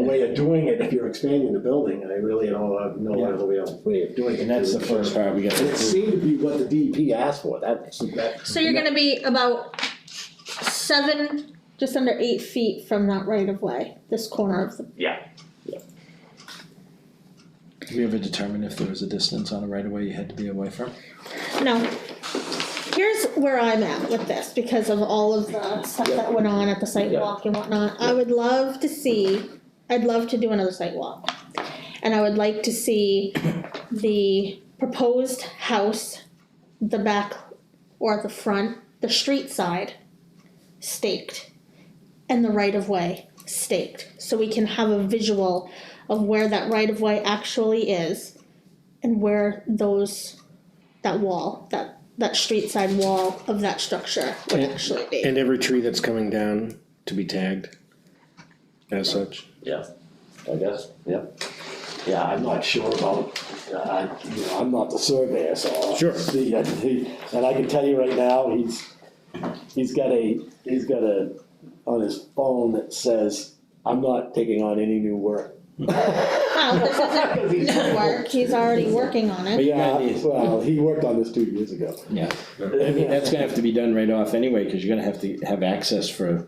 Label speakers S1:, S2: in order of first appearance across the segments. S1: way of doing it, if you're expanding the building, I really don't know what other way of, way of doing it.
S2: And that's the first part we got
S1: And
S2: to
S1: it seemed to be what the DEP asked for, that, that.
S3: So you're gonna be about seven, just under eight feet from that right of way, this corner of the,
S2: Did we ever determine if there was a distance on a right of way you had to be away from?
S3: no. Here's where I'm at with this, because of all of the stuff that went on at the site
S1: Yeah.
S3: walk and whatnot, I would love to see, I'd love to do another site walk. And I would like to see the proposed house, the back or the front, the street side staked and the right of way staked so we can have a visual of where that right of way actually is and where those that wall that that street side wall of that structure would
S4: And-
S3: actually be
S4: And every tree that's coming down to be tagged as such.
S1: Yeah, I guess, yeah. Yeah, I'm not sure about, uh, I, you know, I'm not the surveyor, so.
S4: Sure.
S1: The, uh, the- and I can tell you right now, he's, he's got a, he's got a, on his phone that says, I'm not taking on any new work.
S3: well this isn't
S1: Because he's-
S3: new work he's already working on it
S1: Yeah,
S2: Yeah.
S1: well, he worked on this two years ago.
S2: Yeah. I mean, that's gonna have to be done right off anyway, cause you're gonna have to have access for,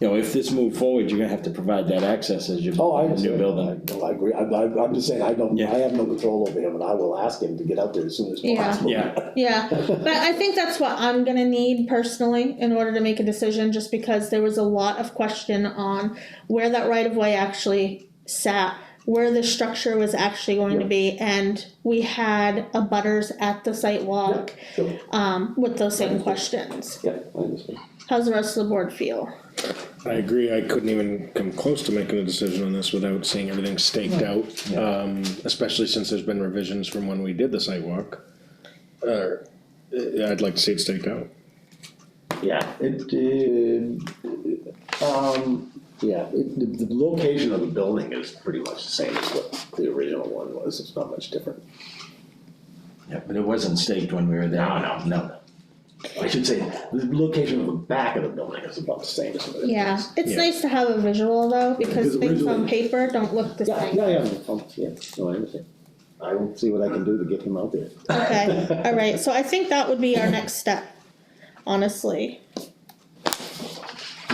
S2: you know, if this moved forward, you're gonna have to provide that access as you
S1: Oh, I
S2: build a
S1: understand.
S2: new building.
S1: No, I agree, I, I, I'm just saying, I don't,
S2: Yeah.
S1: I have no control over him, and I will ask him to get out there as soon as
S3: Yeah.
S1: possible.
S2: Yeah,
S3: yeah but i think that's what i'm going to need personally in order to make a decision just because there was a lot of question on where that right of way actually sat where the structure was actually going to be and we had a butters at the site walk
S1: sure.
S3: um, with those same questions
S1: Yeah, I understand.
S3: how's the rest of the board feel
S4: I agree, I couldn't even come close to making a decision on this without seeing everything staked out. Um, especially since there's been revisions from when we did the sidewalk. Uh, yeah, I'd like to see it staked out.
S1: Yeah, it, uh, um, yeah, it- the, the location of the building is pretty much the same as what the original one was, it's not much different.
S2: yeah, but it wasn't staked when we were there.
S1: No, no.
S2: No.
S1: I should say, the location of the back of the building is about the same as what it is.
S3: yeah it's
S4: Yeah.
S3: nice to have a visual though
S1: Because
S3: because things on
S1: originally-
S3: paper don't look the
S1: Yeah,
S3: same
S1: yeah, yeah, um, yeah, no, I understand. I will see what I can do to get him out there.
S3: Okay, all right, so I think that would be our next step, honestly.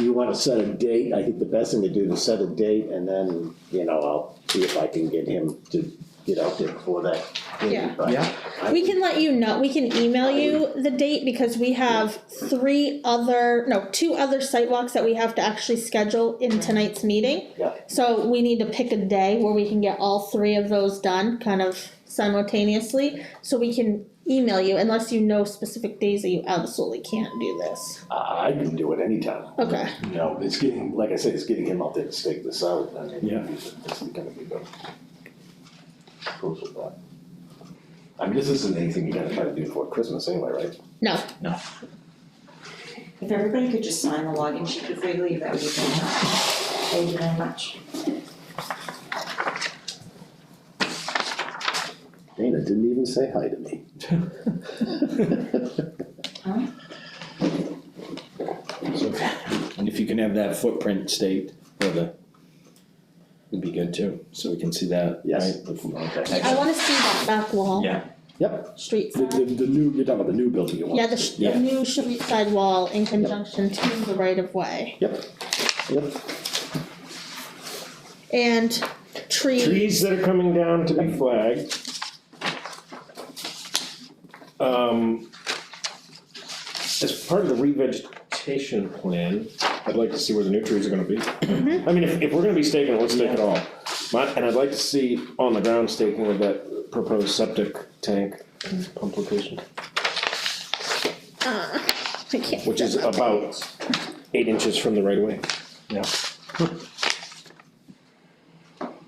S1: You wanna set a date, I think the best thing to do is set a date and then, you know, I'll see if I can get him to get out there before that.
S3: Yeah.
S1: But
S2: Yeah.
S1: I-
S3: We can let you know, we can email you the date because we have three other, no, two other sidewalks that we have to actually schedule in tonight's meeting.
S1: Yeah.
S3: So we need to pick a day where we can get all three of those done kind of simultaneously. So we can email you unless you know specific days that you absolutely can't do this.
S1: I I can do it anytime.
S3: Okay.
S1: You know, it's getting, like I said, it's getting him out there to stake this out, I mean,
S4: Yeah.
S1: this is gonna be good. Close with that. I mean, this isn't anything you're gonna try to do before Christmas anyway, right?
S3: No,
S5: If everybody could just sign the login sheet before you leave, that would be fantastic. Thank you very much.
S1: Dana didn't even say hi to me.
S2: So, And if you can have that footprint staked for the, it'd be good too, so we can see that,
S1: Yes.
S2: right?
S1: Okay.
S3: I wanna see that back wall.
S2: Yeah.
S1: Yep,
S3: Street
S1: the,
S3: side.
S1: the, the new, you're talking about the new building you want.
S3: Yeah, the sh-
S2: Yeah.
S3: the new street side wall in conjunction to the right of way
S1: Yep, yep,
S3: and tree,
S4: Trees that are coming down to be flagged. Um, as part of the revegetation plan, I'd like to see where the new trees are gonna be. I mean, if, if we're gonna be staking, it, let's stake it all. My, and I'd like to see on the ground staking of that proposed septic tank pump location,
S3: I can't.
S4: which is about eight inches from the right of way.
S2: Yeah.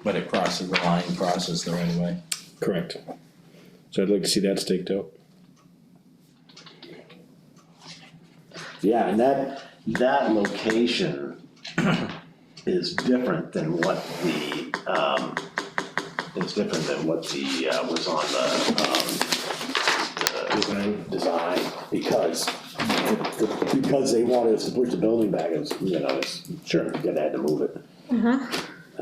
S2: But it crosses the line, crosses the right of way.
S4: Correct. So I'd like to see that staked out.
S1: yeah, and that, that location is different than what the, um, is different than what the, uh, was on the, um,
S4: Design.
S1: design because, because they wanted us to push the building back, it's, you know, it's, sure, you're gonna have to move it.
S3: Uh-huh,